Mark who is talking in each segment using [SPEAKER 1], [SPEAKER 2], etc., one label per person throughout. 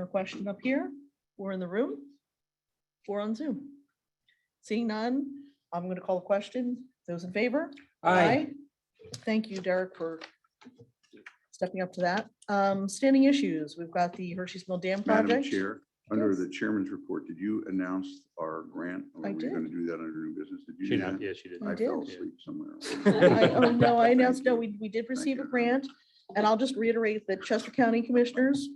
[SPEAKER 1] Or question up here, or in the room, or on Zoom. Seeing none, I'm going to call the question. Those in favor?
[SPEAKER 2] Aye.
[SPEAKER 1] Thank you, Derek, for stepping up to that. Um, Standing issues, we've got the Hershey's Mill Dam
[SPEAKER 3] Madam
[SPEAKER 1] project.
[SPEAKER 3] Chair, under
[SPEAKER 1] Yes.
[SPEAKER 3] the chairman's report, did you announce our grant? Or
[SPEAKER 1] I
[SPEAKER 3] Were you
[SPEAKER 1] did.
[SPEAKER 3] going to do that under new business? Did you do
[SPEAKER 4] She not,
[SPEAKER 3] that?
[SPEAKER 4] yeah, she did.
[SPEAKER 1] I
[SPEAKER 3] I fell
[SPEAKER 1] did.
[SPEAKER 3] asleep somewhere.
[SPEAKER 1] I- Oh, no, I announced, no,
[SPEAKER 3] Thank you.
[SPEAKER 1] we, we did receive a
[SPEAKER 3] you.
[SPEAKER 1] grant, and I'll just reiterate that Chester County Commissioners,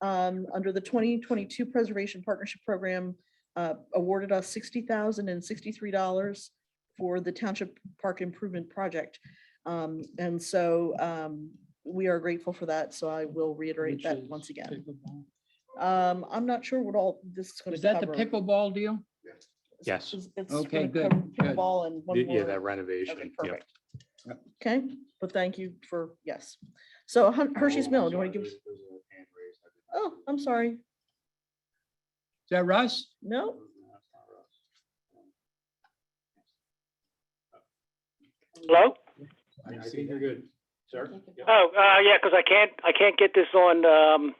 [SPEAKER 1] um, under the twenty twenty-two Preservation Partnership Program, uh, awarded us sixty thousand and sixty-three dollars for the Township Park Improvement Project. Um, and so, um, we are grateful for that, so I will reiterate
[SPEAKER 2] Which
[SPEAKER 1] that
[SPEAKER 2] is
[SPEAKER 1] once again.
[SPEAKER 2] pickleball.
[SPEAKER 1] Um, I'm not sure what all this is gonna
[SPEAKER 2] Is that the
[SPEAKER 1] cover.
[SPEAKER 2] pickleball deal?
[SPEAKER 4] Yes.
[SPEAKER 1] It's- it's gonna
[SPEAKER 2] Okay, good,
[SPEAKER 1] cover
[SPEAKER 2] good.
[SPEAKER 1] Pickleball and one more.
[SPEAKER 4] Yeah, that
[SPEAKER 1] Okay,
[SPEAKER 4] renovation. Yeah.
[SPEAKER 1] perfect. Okay, but thank you for, yes. So Hun- Hershey's Mill, do you want to give? us? Oh, I'm sorry.
[SPEAKER 2] Is that Russ?
[SPEAKER 1] No,
[SPEAKER 5] Hello?
[SPEAKER 2] I
[SPEAKER 4] I
[SPEAKER 2] see
[SPEAKER 4] think you're good, sir.
[SPEAKER 5] Oh, uh, yeah, 'cause I can't, I can't get this on, um,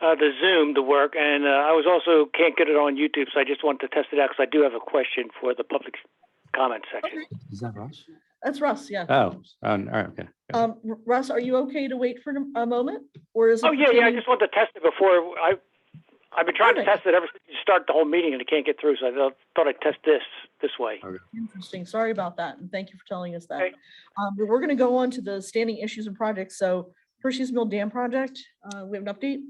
[SPEAKER 5] uh, the Zoom to work, and, uh, I was also, can't get it on YouTube, so I just wanted to test it out, 'cause I do have a question for the public comment section.
[SPEAKER 4] Is that Russ?
[SPEAKER 1] that's Russ, yeah.
[SPEAKER 4] Oh, oh, all right, okay. yeah.
[SPEAKER 1] Um, R- Russ, are you okay to wait for a moment? Or is? it
[SPEAKER 5] Oh, yeah, yeah, I
[SPEAKER 1] pertaining-
[SPEAKER 5] just wanted to test it before, I, I've been trying to
[SPEAKER 1] Perfect.
[SPEAKER 5] test it ever since you start the whole meeting, and I can't get through, so I thought- thought I'd test this, this way.
[SPEAKER 1] Interesting. Sorry about that. And thank you for telling us that.
[SPEAKER 5] Okay.
[SPEAKER 1] Um, but we're going to go on to the standing issues and projects. So Hershey's Mill Dam Project, uh, we have an update.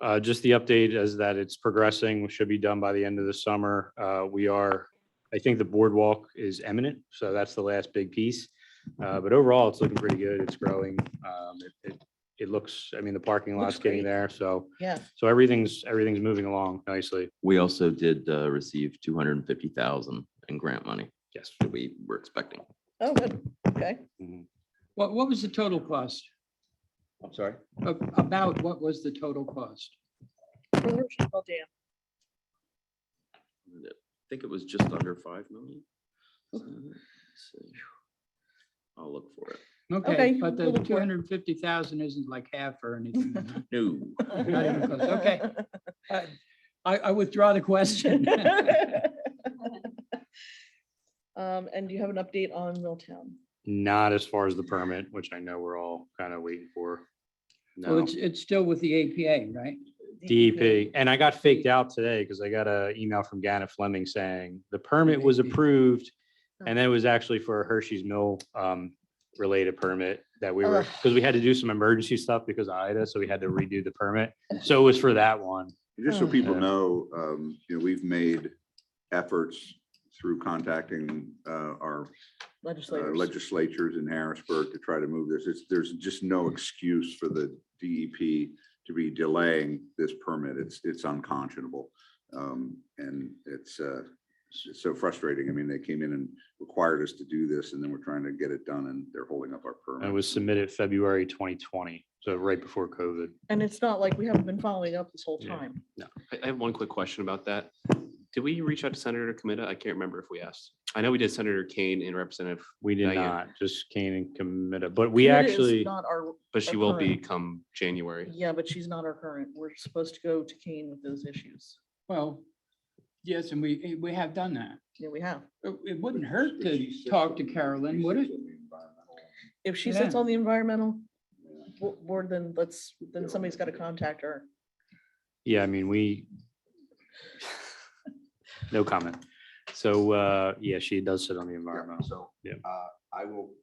[SPEAKER 4] Uh, just the update is that it's progressing, should be done by the end of the summer. Uh, we are, I think the boardwalk is imminent, so that's the last big piece. Uh, but overall, it's looking pretty good. It's growing. Um, it- it, it looks, I mean, the parking
[SPEAKER 1] Looks
[SPEAKER 4] lot's getting
[SPEAKER 1] great.
[SPEAKER 4] there, so,
[SPEAKER 1] Yeah,
[SPEAKER 4] so everything's, everything's moving along nicely.
[SPEAKER 6] We also did uh, receive two hundred and fifty thousand in grant money
[SPEAKER 4] Yes.
[SPEAKER 6] that we were expecting.
[SPEAKER 1] oh, good. Okay.
[SPEAKER 4] Mhm.
[SPEAKER 2] What, what was the total cost?
[SPEAKER 6] I'm sorry?
[SPEAKER 2] A- About what was the total cost?
[SPEAKER 1] For the Hershey's Mill Dam.
[SPEAKER 6] I think it was just under five million. Uh, let's see. I'll look for it.
[SPEAKER 2] Okay,
[SPEAKER 1] Okay,
[SPEAKER 2] but the
[SPEAKER 1] we'll look for it.
[SPEAKER 2] two hundred and fifty thousand isn't like half or anything. huh?
[SPEAKER 6] No.
[SPEAKER 2] Not even close. Okay. Uh, I, I withdraw the question.
[SPEAKER 1] Um, and do you have an update on Milltown?
[SPEAKER 4] Not as far as the permit, which I know we're all kind of waiting for.
[SPEAKER 2] Well,
[SPEAKER 4] No.
[SPEAKER 2] it's, it's still with the APA, right? E
[SPEAKER 4] DEP. And I got faked out today because I got an email from Gannett Fleming saying the permit was
[SPEAKER 2] DEP.
[SPEAKER 4] approved. And then it was actually for a Hershey's Mill um, related permit that we were,
[SPEAKER 1] Ugh.
[SPEAKER 4] because we had to do some emergency stuff because of Ida, so we had to redo the permit. So it was for that one.
[SPEAKER 3] And Just so
[SPEAKER 1] Oh.
[SPEAKER 3] people
[SPEAKER 4] Yeah.
[SPEAKER 3] know, um, you know, we've made efforts through contacting, uh, our uh,
[SPEAKER 1] Legislators.
[SPEAKER 3] legislatures in Harrisburg to try to move this. It's, there's just no excuse for the DEP to be delaying this permit. It's, it's unconscionable. Um, and it's, uh, it's just so frustrating. I mean, they came in and required us to do this and then we're trying to get it done and they're holding up our
[SPEAKER 4] And it
[SPEAKER 3] permit.
[SPEAKER 4] was submitted February 2020, so right before COVID.
[SPEAKER 1] And it's not like we haven't been following up this whole
[SPEAKER 4] Yeah.
[SPEAKER 1] time.
[SPEAKER 7] I I have one quick question about that. Did we reach out to Senator Comita? I can't remember if we asked. I know we did Senator Kane and Representative,
[SPEAKER 4] We did
[SPEAKER 7] Not yet.
[SPEAKER 4] not, just Kane and Committa, but we
[SPEAKER 1] It is
[SPEAKER 4] actually,
[SPEAKER 1] Not our,
[SPEAKER 7] but she will be
[SPEAKER 1] Current.
[SPEAKER 7] come January.
[SPEAKER 1] yeah, but she's not our current. We're supposed to go to Kane with those issues.
[SPEAKER 2] Well, yes, and we, eh, we have done that.
[SPEAKER 1] Yeah, we have.
[SPEAKER 2] It- It wouldn't hurt to talk to Carolyn, would it?
[SPEAKER 1] If she sits
[SPEAKER 2] Yeah.
[SPEAKER 1] on the environmental bo- board, then let's, then somebody's got to contact her.
[SPEAKER 4] yeah, I mean, we. No comment. So, uh, yeah, she does sit on the environmental.
[SPEAKER 3] So,
[SPEAKER 4] Yeah.
[SPEAKER 3] uh, I will,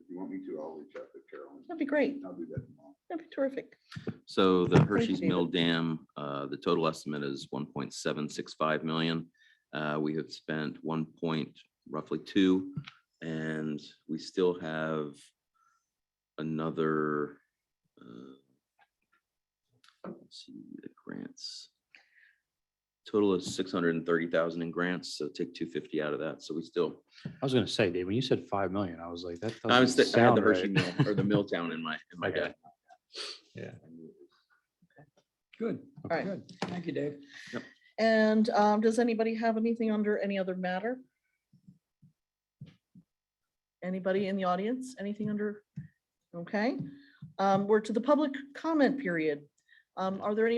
[SPEAKER 3] if you want me to, I'll reach out to Carolyn.
[SPEAKER 1] That'd be great.
[SPEAKER 3] I'll do that tomorrow.
[SPEAKER 1] That'd be terrific.
[SPEAKER 6] So the Hershey's
[SPEAKER 1] David.
[SPEAKER 6] Mill Dam, uh, the total estimate is one point seven six five million. Uh, we have spent one point roughly two, and we still have another. uh, let's See the grants. Total is six hundred and thirty thousand in grants, so take two fifty out of that, so we still,
[SPEAKER 4] I was gonna say, Dave, when you said five million, I was like, that
[SPEAKER 6] I was,
[SPEAKER 4] doesn't
[SPEAKER 6] I had the
[SPEAKER 4] sound
[SPEAKER 6] Hershey
[SPEAKER 4] right.
[SPEAKER 6] Mill or the Milltown in my, in my
[SPEAKER 4] Okay.
[SPEAKER 6] head.
[SPEAKER 2] Good,
[SPEAKER 1] All right.
[SPEAKER 2] good. Thank you, Dave.
[SPEAKER 1] And um, does anybody have anything under any other matter? Anybody in the audience, anything under? Okay, Um, we're to the public comment period. Um, Are there any